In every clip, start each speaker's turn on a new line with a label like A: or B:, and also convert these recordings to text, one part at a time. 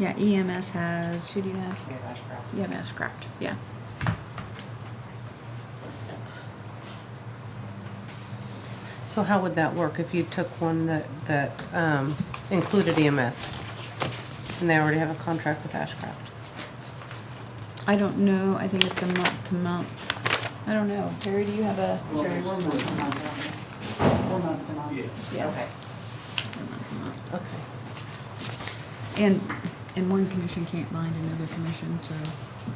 A: Yeah, EMS has, who do you have? E
B: Yeah, that's crap.
A: You have Ashcraft, yeah.
C: So how would that work if you took one that, that um, included EMS? And they already have a contract with Ashcraft?
A: I don't know, I think it's a month to month. I don't know. Terry, do you have a?
B: Well, we're month to month, aren't we? We're month to month.
A: Yeah.
C: Okay.
A: a month to month.
C: Okay.
A: And, and one commission can't bind another commission, so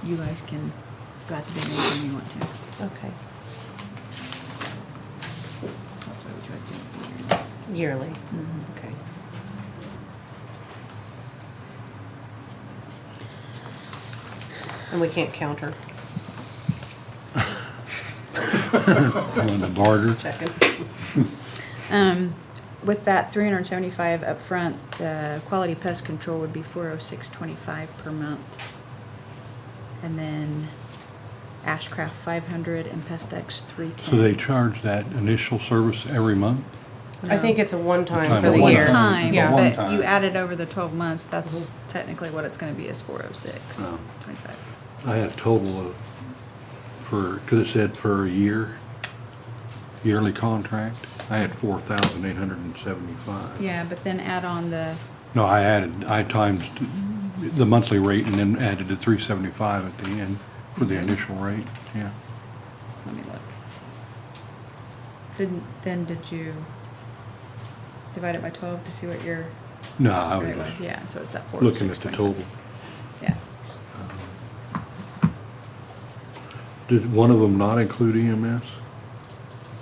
A: you guys can go out to bid anything you want to.
C: Okay.
A: That's what we try to do.
C: Yearly?
A: Mhm.
C: Okay. And we can't counter,
D: On the barter.
C: checking.
A: Um, with that three hundred and seventy-five upfront, the quality pest control would be four oh six twenty-five per month. And then Ashcraft five hundred and Pest X three ten.
D: So they charge that initial service every month?
C: I think it's a one-time
D: Time
C: for the
D: one
C: year.
A: Time,
C: Yeah.
E: one
A: but you
E: time.
A: add it over the twelve months, that's technically what it's gonna be is four oh six
D: Oh.
A: twenty-five.
D: I had a total of, for, because it said for a year, yearly contract, I had four thousand eight hundred and seventy-five.
A: Yeah, but then add on the,
D: No, I added, I times the monthly rate and then added the three seventy-five at the end for the initial rate, yeah.
A: let me look. Then, then did you divide it by twelve to see what your,
D: No, I
A: rate
D: was
A: was? yeah, so it's at four
D: just
A: oh
D: looking
A: six
D: at the
A: twenty-five.
D: total.
A: Yeah.
D: Did one of them not include E EMS?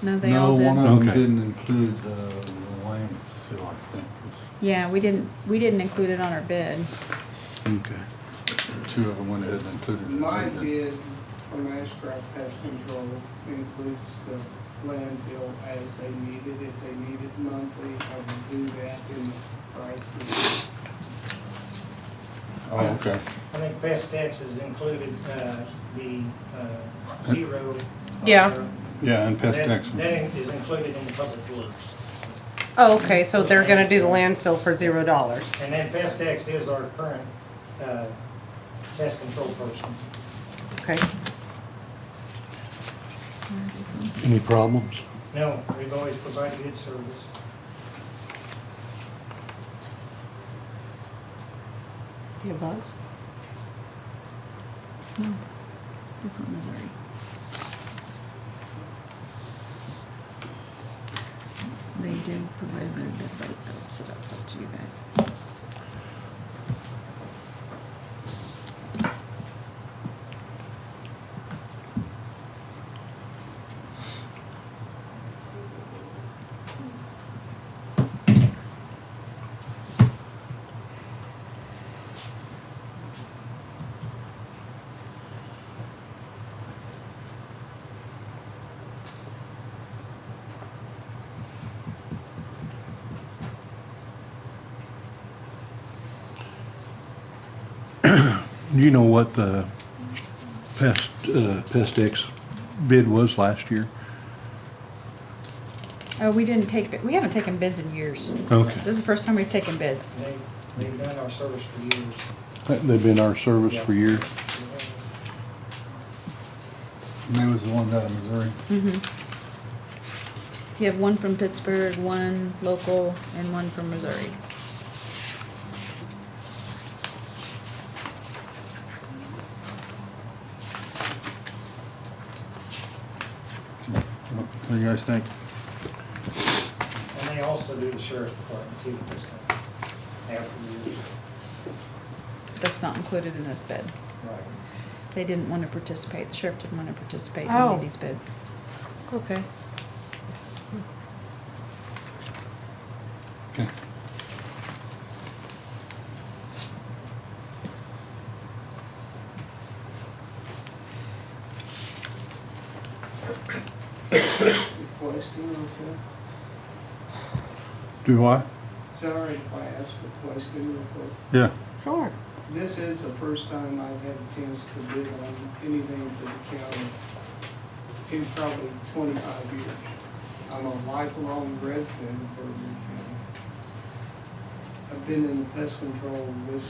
A: No, they all did.
E: No, one of
D: Okay.
E: them didn't include the the landfill, I think, was-
A: Yeah, we didn't, we didn't include it on our bid.
D: Okay.
E: two of them went ahead and included it.
F: My bid from Ashcraft Pest Control includes the landfill as they need it. If they need it monthly, I will do that in the prices.
E: Oh, okay.
G: I think Best X has included uh, the uh, zero. Uh,
C: Yeah.
E: Yeah, and pest
G: That-
E: X was-
G: That is included in the public works.
C: Oh, okay, so they're gonna do the landfill for zero dollars.
G: And then Best X is our current uh, pest control person.
C: Okay.
D: Any problems?
G: No, we've always provided good service.
C: Do you have bugs?
A: Hmm. Different Missouri. They did provide their bid rate though, so that's up to you guys.
D: Do you know what the pest, uh, pest X bid was last year?
A: Oh, we didn't take, bid- we haven't taken bids in years.
D: Okay.
A: This is the first time we've taken bids.
G: They, they've done our service for years.
D: They've been our service for years.
E: and they was the ones out of Missouri.
A: Mm-hmm. You have one from Pittsburgh, one local, and one from Missouri.
E: What do you guys think?
G: And they also do the sheriff's department too, this time, after years.
A: That's not included in this bid.
G: Right.
A: They didn't want to participate, the sheriff didn't want to participate in any
C: Oh.
A: of these bids.
C: Okay.
E: Okay.
F: Question also,
E: Do I?
F: sorry if I ask a question real quick.
E: Yeah.
C: Sure.
F: This is the first time I've had a chance to bid on anything for the county in probably twenty-five years. I'm a lifelong resident of Bourbon County. I've been in pest control this